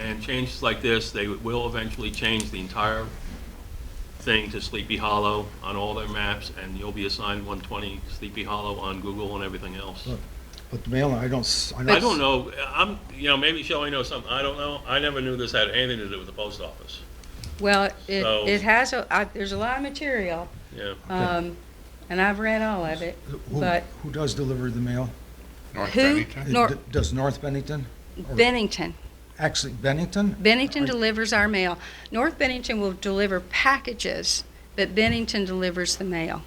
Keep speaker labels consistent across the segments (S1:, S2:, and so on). S1: And changes like this, they will eventually change the entire thing to Sleepy Hollow on all their maps, and you'll be assigned 120 Sleepy Hollow on Google and everything else.
S2: But the mailing, I don't, s- I
S1: I don't know, I'm, you know, maybe Shelley knows something, I don't know, I never knew this had anything to do with the post office,
S3: Well, it,
S1: So-
S3: it has, a I- there's a lot of material,
S1: yeah.
S3: um, and I've read all of it,
S2: Who,
S3: but
S2: who does deliver the mail?
S4: North
S3: Who-
S4: Bennington?
S3: Nor-
S2: D- Does North Bennington? or-
S3: Bennington,
S2: Actually, Bennington?
S3: Bennington
S2: I-
S3: delivers our mail. North Bennington will deliver packages, but Bennington delivers the mail.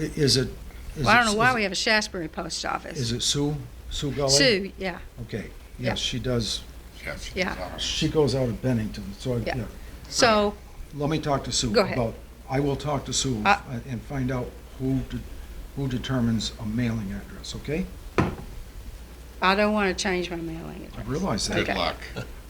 S2: I- Is it? is
S3: Well, I
S2: it-
S3: don't know why
S2: is
S3: we
S2: it-
S3: have a Shasbury post
S2: Is
S3: office.
S2: it Sue? Sue Gully?
S3: Sue, yeah,
S2: Okay,
S3: Yeah.
S2: yes, she does.
S4: Yes, it's
S3: Yeah.
S4: ours.
S2: She goes out of Bennington, so, I-
S3: Yeah.
S2: yeah.
S3: so,
S2: Let me talk to Sue.
S3: Go ahead.
S2: about- I will talk to Sue
S3: Uh,
S2: and and find out who, de- who determines a mailing address, okay?
S3: I don't want to change my mailing
S2: I
S3: address.
S2: realize that.
S4: Good
S3: Okay.
S4: luck.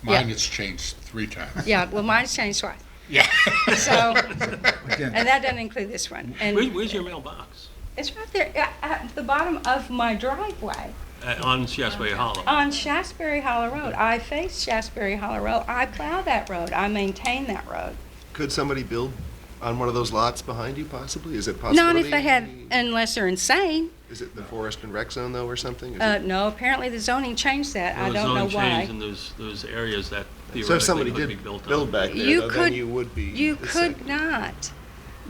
S4: Mine has changed three times.
S3: Yeah, well, mine's changed twice,
S4: Yeah.
S3: so,
S2: Again,
S3: and that doesn't include this one.
S1: Where-
S3: And
S1: Where's your mailbox?
S3: it's right there, at, at the bottom of my driveway.
S1: Uh, On Shasbury Hollow?
S3: On Shasbury Hollow Road, I face Shasbury Hollow Road, I plow that road, I maintain that road.
S5: Could somebody build on one of those lots behind you possibly? Is it possible?
S3: Not if they had, unless they're insane,
S5: Is it the forest and rec zone though or something? Is
S3: uh,
S5: it-
S3: no, apparently the zoning changed that, I
S1: Those
S3: don't know
S1: zoning change
S3: why.
S1: in those, those areas that
S5: So if somebody
S1: theoretically could be
S5: did
S1: built on.
S5: build
S3: You
S5: back there though, then
S3: could-
S5: you would be.
S3: You
S5: the
S3: could
S5: same.
S3: not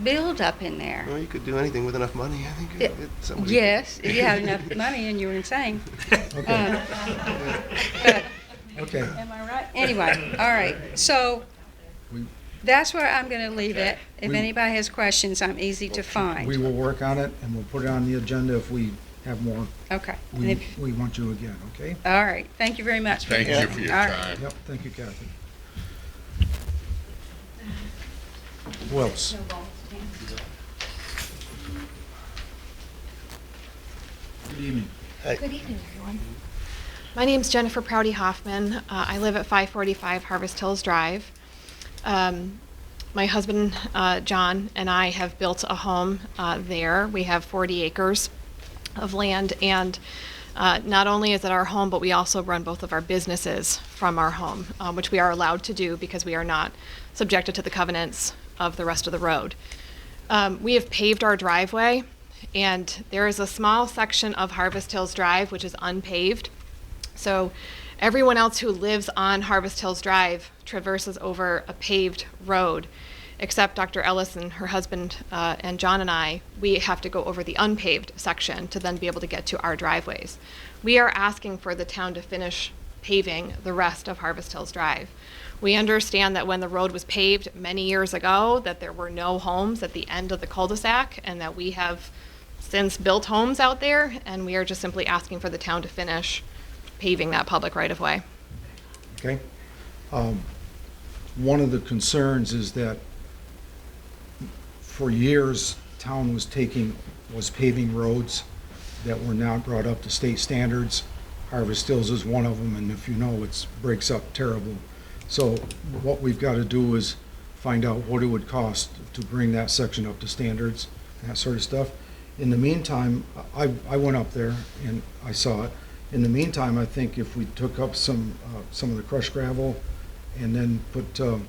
S3: build up in there.
S5: Well, you could do anything with enough money, I think.
S3: Yeah.
S5: It- somebody-
S3: Yes, if you had enough money and you were insane.
S2: okay,
S3: But,
S2: okay.
S3: am I right? Anyway, all right, so
S2: We-
S3: that's where I'm gonna leave it. If
S2: We-
S3: anybody has questions, I'm easy to
S2: We
S3: find.
S2: will work on it and we'll put it on the agenda if we have more,
S3: Okay, and
S2: we,
S3: if-
S2: we want you again, okay?
S3: all right, thank you very much.
S4: Thank you for your
S3: All right.
S4: time.
S2: Yep, thank you, Kathy. Who else? Good evening.
S6: Good evening, everyone. My name's Jennifer Proudy Hoffman. Uh, I live at 545 Harvest Hills Drive. Um, my husband, uh, John, and I have built a home uh, there. We have 40 acres of land, and uh, not only is it our home, but we also run both of our businesses from our home, um, which we are allowed to do because we are not subjected to the covenants of the rest of the road. Um, we have paved our driveway, and there is a small section of Harvest Hills Drive which is unpaved. So everyone else who lives on Harvest Hills Drive traverses over a paved road, except Dr. Ellis and her husband uh, and John and I. We have to go over the unpaved section to then be able to get to our driveways. We are asking for the town to finish paving the rest of Harvest Hills Drive. We understand that when the road was paved many years ago, that there were no homes at the end of the cul-de-sac, and that we have since built homes out there, and we are just simply asking for the town to finish paving that public right-of-way.
S2: Okay. Um, One of the concerns is that for years, town was taking, was paving roads that were not brought up to state standards. Harvest Hills is one of them, and if you know, it's, breaks up terrible. So what we've got to do is find out what it would cost to bring that section up to standards, and that sort of stuff. In the meantime, I, I went up there and I saw it. In the meantime, I think if we took up some, uh, some of the crushed gravel and then put, um,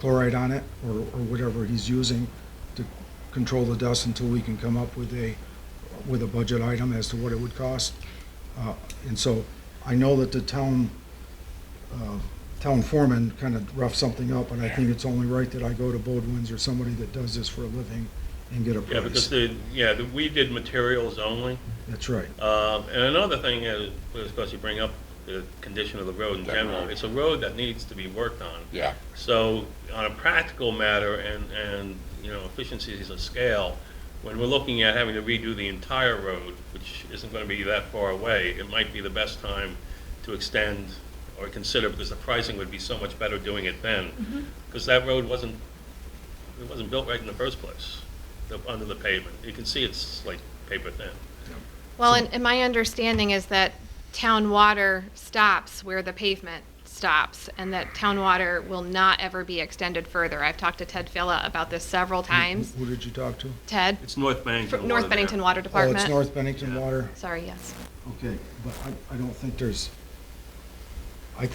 S2: chloride on it or, or whatever he's using to control the dust until we can come up with a, with a budget item as to what it would cost. Uh, And so I know that the town, uh, town foreman kind of roughed something up, and I think it's only right that I go to Bodwin's or somebody that does this for a living and get a
S1: Yeah, because
S2: price.
S1: the, yeah, the- we did materials only.
S2: That's right.
S1: Um, And another thing is, was supposed to bring up the condition of the road in
S4: That
S1: general.
S4: road.
S1: It's a road that needs to be worked on.
S4: Yeah.
S1: So on a practical matter and, and, you know, efficiencies of scale, when we're looking at having to redo the entire road, which isn't going to be that far away, it might be the best time to extend or consider, because the pricing would be so much better doing it then. Because that road wasn't, it wasn't built right in the first place, the- under the pavement. You can see it's like paper thin.
S6: Well, and, and my understanding is that town water stops where the pavement stops, and that town water will not ever be extended further. I've talked to Ted Filla about this several
S2: Mm-hmm.
S6: times.
S2: Who did you talk to?
S6: Ted,
S1: It's North Bennington.
S6: from
S1: water
S6: North
S1: there.
S6: Bennington Water
S2: Oh, it's
S6: Department.
S2: North Bennington Water.
S6: Sorry, yes.
S2: Okay, but I, I don't think there's,